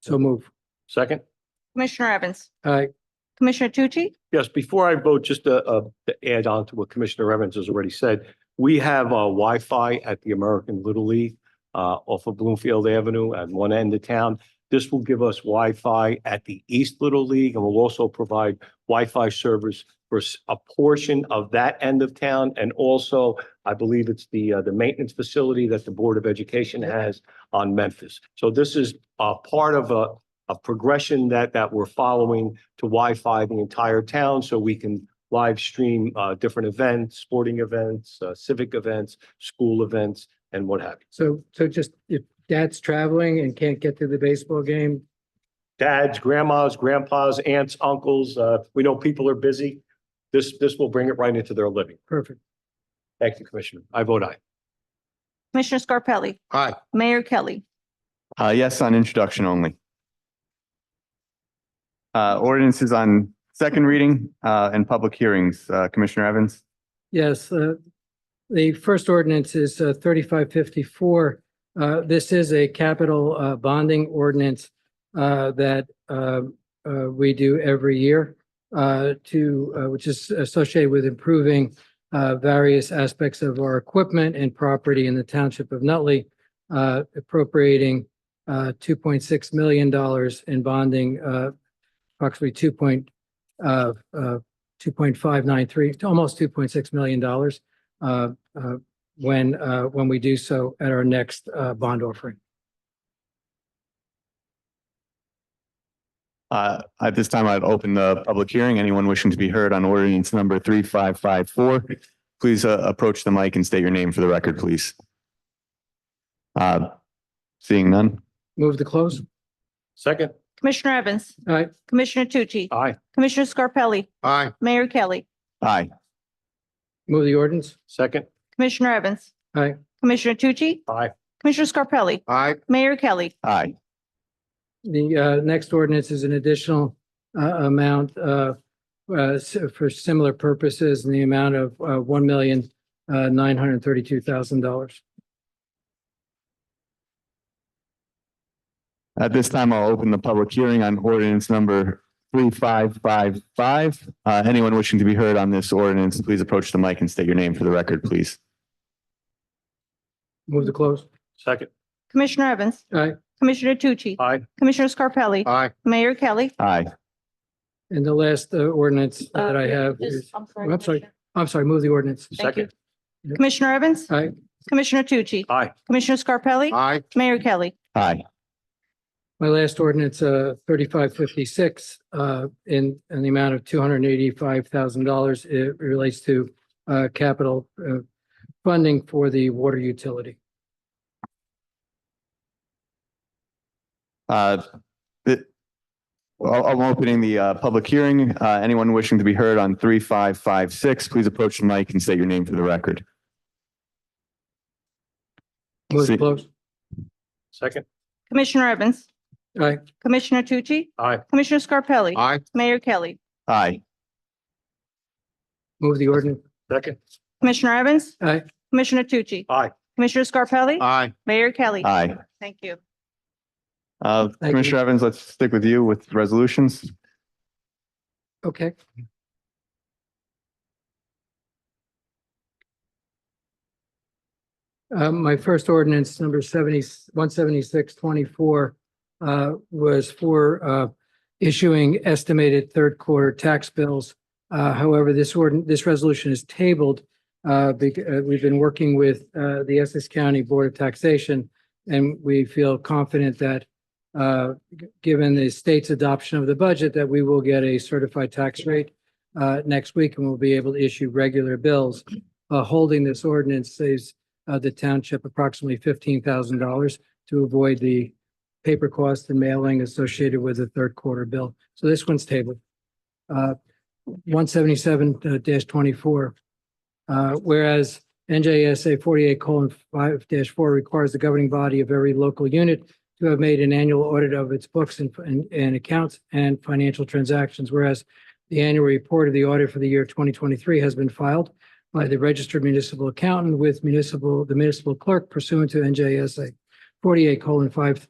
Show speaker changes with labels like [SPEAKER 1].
[SPEAKER 1] So move.
[SPEAKER 2] Second?
[SPEAKER 3] Commissioner Evans,
[SPEAKER 1] Aye.
[SPEAKER 3] Commissioner Tucci,
[SPEAKER 2] Yes, before I vote, just to, uh, to add on to what Commissioner Evans has already said, we have, uh, Wi-Fi at the American Little League, uh, off of Bloomfield Avenue at one end of town. This will give us Wi-Fi at the East Little League and will also provide Wi-Fi service for s- a portion of that end of town. And also, I believe it's the, uh, the maintenance facility that the Board of Education has on Memphis. So this is, uh, part of a, a progression that, that we're following to Wi-Fi the entire town so we can live stream uh, different events, sporting events, uh, civic events, school events, and what have you.
[SPEAKER 1] So, so just if dad's traveling and can't get to the baseball game,
[SPEAKER 2] Dads, grandmas, grandpas, aunts, uncles, uh, we know people are busy. This, this will bring it right into their living.
[SPEAKER 1] perfect.
[SPEAKER 2] Thank you, Commissioner. I vote aye.
[SPEAKER 3] Commissioner Scarpelli.
[SPEAKER 4] Aye.
[SPEAKER 3] Mayor Kelly,
[SPEAKER 4] Uh, yes, on introduction only. Uh, ordinances on second reading, uh, and public hearings, uh, Commissioner Evans?
[SPEAKER 1] Yes, uh, the first ordinance is uh, thirty-five fifty-four. Uh, This is a capital uh, bonding ordinance uh, that uh, uh, we do every year uh, to, uh, which is associated with improving uh, various aspects of our equipment and property in the township of Nutley, uh, appropriating uh, two point six million dollars in bonding, uh, approximately two point uh, uh, two point five nine three, almost two point six million dollars uh, uh, when, uh, when we do so at our next uh, bond offering.
[SPEAKER 4] Uh, at this time, I'd open the public hearing. Anyone wishing to be heard on ordinance number three, five, five, four, please, uh, approach the mic and state your name for the record, please. Uh, seeing none?
[SPEAKER 1] Move to close.
[SPEAKER 2] Second?
[SPEAKER 3] Commissioner Evans,
[SPEAKER 1] Aye.
[SPEAKER 3] Commissioner Tucci,
[SPEAKER 2] Aye.
[SPEAKER 3] Commissioner Scarpelli,
[SPEAKER 4] Aye.
[SPEAKER 3] Mayor Kelly,
[SPEAKER 4] Aye.
[SPEAKER 1] Move the ordinance.
[SPEAKER 2] Second?
[SPEAKER 3] Commissioner Evans.
[SPEAKER 1] Aye.
[SPEAKER 3] Commissioner Tucci,
[SPEAKER 2] Aye.
[SPEAKER 3] Commissioner Scarpelli,
[SPEAKER 4] Aye.
[SPEAKER 3] Mayor Kelly,
[SPEAKER 4] Aye.
[SPEAKER 1] The uh, next ordinance is an additional uh, amount uh, uh, s- for similar purposes in the amount of uh, one million uh, nine hundred thirty-two thousand dollars.
[SPEAKER 4] At this time, I'll open the public hearing on ordinance number three, five, five, five. Uh, anyone wishing to be heard on this ordinance, please approach the mic and state your name for the record, please.
[SPEAKER 1] Move to close.
[SPEAKER 2] Second?
[SPEAKER 3] Commissioner Evans,
[SPEAKER 1] Aye.
[SPEAKER 3] Commissioner Tucci,
[SPEAKER 2] Aye.
[SPEAKER 3] Commissioner Scarpelli,
[SPEAKER 2] Aye.
[SPEAKER 3] Mayor Kelly.
[SPEAKER 4] Aye.
[SPEAKER 1] And the last uh, ordinance that I have is,
[SPEAKER 3] I'm
[SPEAKER 1] Oh, I'm sorry. I'm sorry, move the ordinance.
[SPEAKER 3] Thank you.
[SPEAKER 2] Second?
[SPEAKER 3] Commissioner Evans,
[SPEAKER 1] Aye.
[SPEAKER 3] Commissioner Tucci,
[SPEAKER 2] Aye.
[SPEAKER 3] Commissioner Scarpelli,
[SPEAKER 2] Aye.
[SPEAKER 3] Mayor Kelly,
[SPEAKER 4] Aye.
[SPEAKER 1] My last ordinance, uh, thirty-five fifty-six, uh, in, in the amount of two hundred and eighty-five thousand dollars. It relates to, uh, capital, uh, funding for the water utility.
[SPEAKER 4] Uh, the- Well, I'm opening the, uh, public hearing. Uh, anyone wishing to be heard on three, five, five, six, please approach the mic and state your name for the record.
[SPEAKER 1] Move to
[SPEAKER 4] See-
[SPEAKER 1] close.
[SPEAKER 2] Second?
[SPEAKER 3] Commissioner Evans,
[SPEAKER 1] Aye.
[SPEAKER 3] Commissioner Tucci,
[SPEAKER 2] Aye.
[SPEAKER 3] Commissioner Scarpelli,
[SPEAKER 2] Aye.
[SPEAKER 3] Mayor Kelly,
[SPEAKER 4] Aye.
[SPEAKER 1] Move the ordinance.
[SPEAKER 2] Second?
[SPEAKER 3] Commissioner Evans,
[SPEAKER 1] Aye.
[SPEAKER 3] Commissioner Tucci.
[SPEAKER 2] Aye.
[SPEAKER 3] Commissioner Scarpelli.
[SPEAKER 2] Aye.
[SPEAKER 3] Mayor Kelly.
[SPEAKER 4] Aye.
[SPEAKER 3] Thank you.
[SPEAKER 4] Uh,
[SPEAKER 1] you.
[SPEAKER 4] Commissioner Evans, let's stick with you with resolutions.
[SPEAKER 1] Okay. Um, my first ordinance, number seventy, one seventy-six twenty-four, uh, was for, uh, issuing estimated third quarter tax bills. Uh, however, this ordin, this resolution is tabled, uh, because, uh, we've been working with, uh, the Essex County Board of Taxation, and we feel confident that, uh, given the state's adoption of the budget, that we will get a certified tax rate uh, next week and we'll be able to issue regular bills. Uh, Holding this ordinance saves uh, the township approximately fifteen thousand dollars to avoid the paper cost and mailing associated with the third quarter bill. So this one's tabled. Uh, One seventy-seven uh, twenty-four. Uh, Whereas NJSA forty-eight five four requires the governing body of every local unit to have made an annual audit of its books and, and, and accounts and financial transactions, whereas the annual report of the audit for the year twenty twenty-three has been filed by the registered municipal accountant with municipal, the municipal clerk pursuant to NJSA forty-eight colon five